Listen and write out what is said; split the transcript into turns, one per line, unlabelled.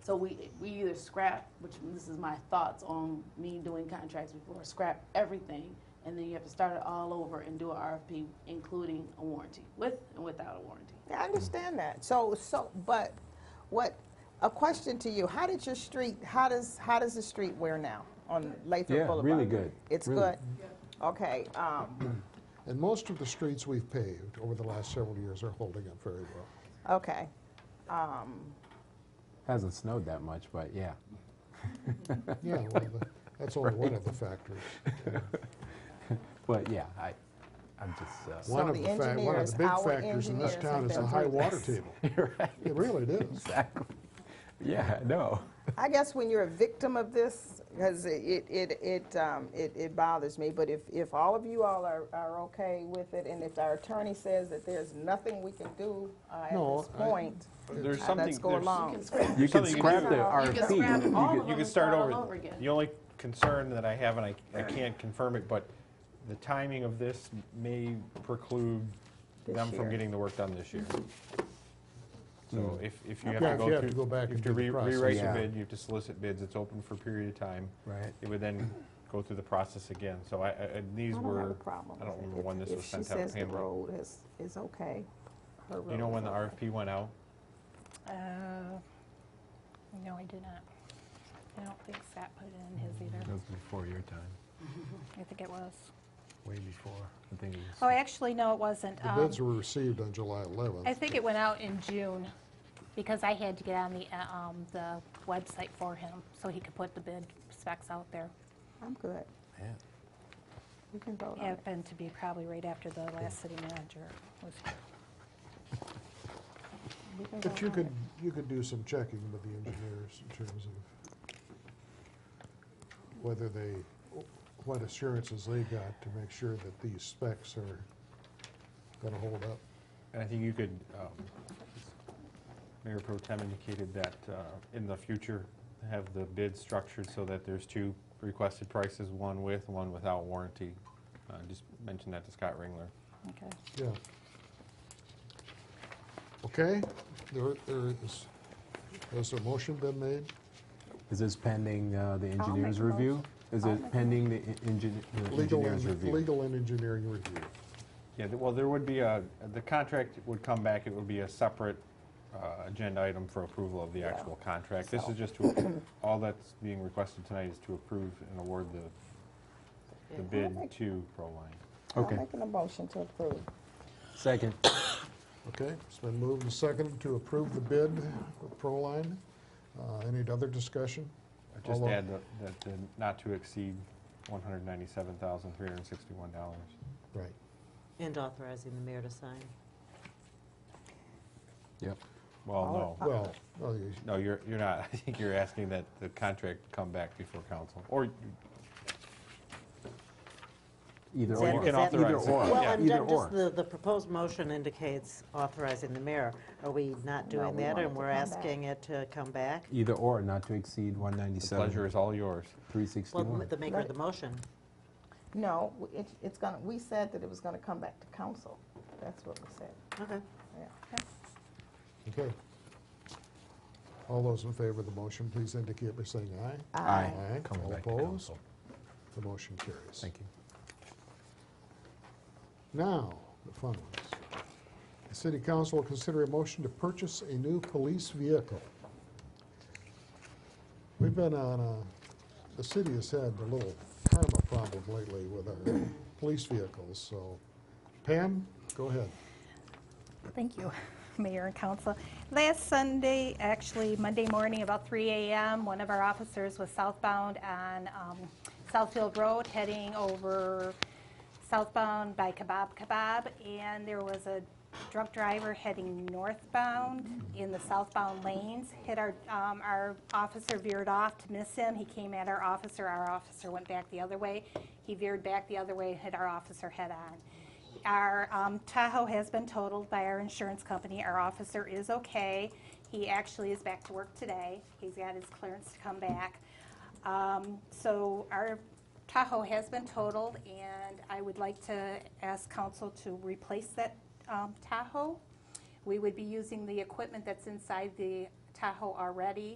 So we, we either scrap, which this is my thoughts on me doing contracts before, scrap everything, and then you have to start it all over and do an RFP, including a warranty, with and without a warranty.
Yeah, I understand that. So, so, but what, a question to you, how did your street, how does, how does the street wear now on Lathrop
Yeah,
Boulevard?
really good.
It's
Really.
good? Okay, um,
And most of the streets we've paved over the last several years are holding up very well.
okay. Um,
Hasn't snowed that much, but yeah.
Yeah, well, the- that's only one of the factors.
But yeah, I, I'm just, uh,
So
One of
the
fac- One
engineers,
of the big
our
factors in this
engineers
town
have
is
been
the high
doing
water
this.
table.
right,
It really is.
exactly. Yeah, no.
I guess when you're a victim of this, because it, it, it, um, it, it bothers me, but if, if all of you all are, are okay with it, and if our attorney says that there's nothing we can do uh, at
No,
this
I-
point,
There's
uh,
something.
let's go
there's-
You
along.
can scrap,
You
you
can
Something you can
scrap the
scrap.
can scrap
RFP.
all of
You
them
can
and
start
all
over.
over again.
The only concern that I have, and I, I can't confirm it, but the timing of this may preclude
This
them from
year.
getting the work done this year. So if, if you have
Yeah,
to
if
go
you have
through-
to go back
you have
and do
to
the
re-
process.
Rewrite your
Yeah.
bid, you have to solicit bids, it's open for a period of time.
Right.
It would then go through the process again, so I, I, and
I
these
don't
were.
have a problem
I don't
with it.
remember
If-
when this was sent out.
If she says the
Pam,
road is, is okay. her
Do you know
road
when
is
the
okay.
RFP went out?
Uh, no, I did not. I don't think Sat put it in his either.
was before your time,
I think it was.
way before. I think it was.
Oh, actually, no, it wasn't.
The
Um,
bids were received on July
I
11th.
think it went out in June because I had to get on the, uh, um, the website for him so he could put the bid specs out there.
I'm good.
Yeah.
You can vote on it.
Happened to be probably right after the last city manager was here.
We can
But
vote
you
on
could,
it.
you could do some checking with the engineers in terms of whether they, what assurances they got to make sure that these specs are going to hold up.
And I think you could, um, Mayor Pro Tem indicated that uh, in the future, have the bid structured so that there's two requested prices, one with, one without warranty. Uh, Just mentioned that to Scott Ringler.
Okay.
Yeah. Okay, there, there is, has a motion been made?
Is this pending uh, the
I'll
engineer's
make a
review?
motion.
Is
I'll make
it
a
pending the en- engin- the
Legal
engineer's
and,
review?
legal and engineering review.
Yeah, th- well, there would be a, the contract would come back, it would be a separate uh, agenda item for approval of the actual contract. This
So-
is just to, all that's being requested tonight is to approve and award the, the bid to Proline.
Okay.
I'm making a motion to approve.
Second.
Okay, it's been moved and seconded to approve the bid with Proline. Uh, Any other discussion?
Just
Although-
add the- that the not to exceed $197,361.
Right.
And authorizing the mayor to sign.
Yep.
Well, no.
Well, oh, no, you-
No, you're, you're not. I think you're asking that the contract come back before council. Or, you-
Either
Is
or.
that-
or you can
is that-
Either
authorize. it.
or.
Well,
Yeah.
and
Either
then just
or.
the, the proposed motion indicates authorizing the mayor. Are we not
No,
doing
we
that
want it
and
to
we're
come back.
asking it to come back?
Either or, not to exceed
The
197.
pleasure is all yours.
Well,
361.
the maker of the
Right.
motion.
No, w- it, it's gonna, we said that it was gonna come back to council. That's what we said,
Okay.
yeah.
okay. All those in favor of the motion, please indicate by saying aye.
Aye.
Aye.
Coming
All
back to
opposed?
council.
The motion carries.
Thank you.
Now, the fun ones. The city council will consider a motion to purchase a new police vehicle. We've been on a, the city has had a little karma problem lately with our police vehicles, so Pam, go ahead.
Thank you, Mayor and Council. Last Sunday, actually Monday morning, about 3 a.m., one of our officers was southbound on um, Southfield Road, heading over southbound by Kebab Kebab, and there was a drunk driver heading northbound in the southbound lanes. Hit our, um, our officer veered off to miss him. He came at our officer. Our officer went back the other way. He veered back the other way, hit our officer head on. Our um, Tahoe has been totaled by our insurance company. Our officer is okay. He actually is back to work today. He's got his clearance to come back. Um, So our Tahoe has been totaled, and I would like to ask council to replace that um, Tahoe. We would be using the equipment that's inside the Tahoe already.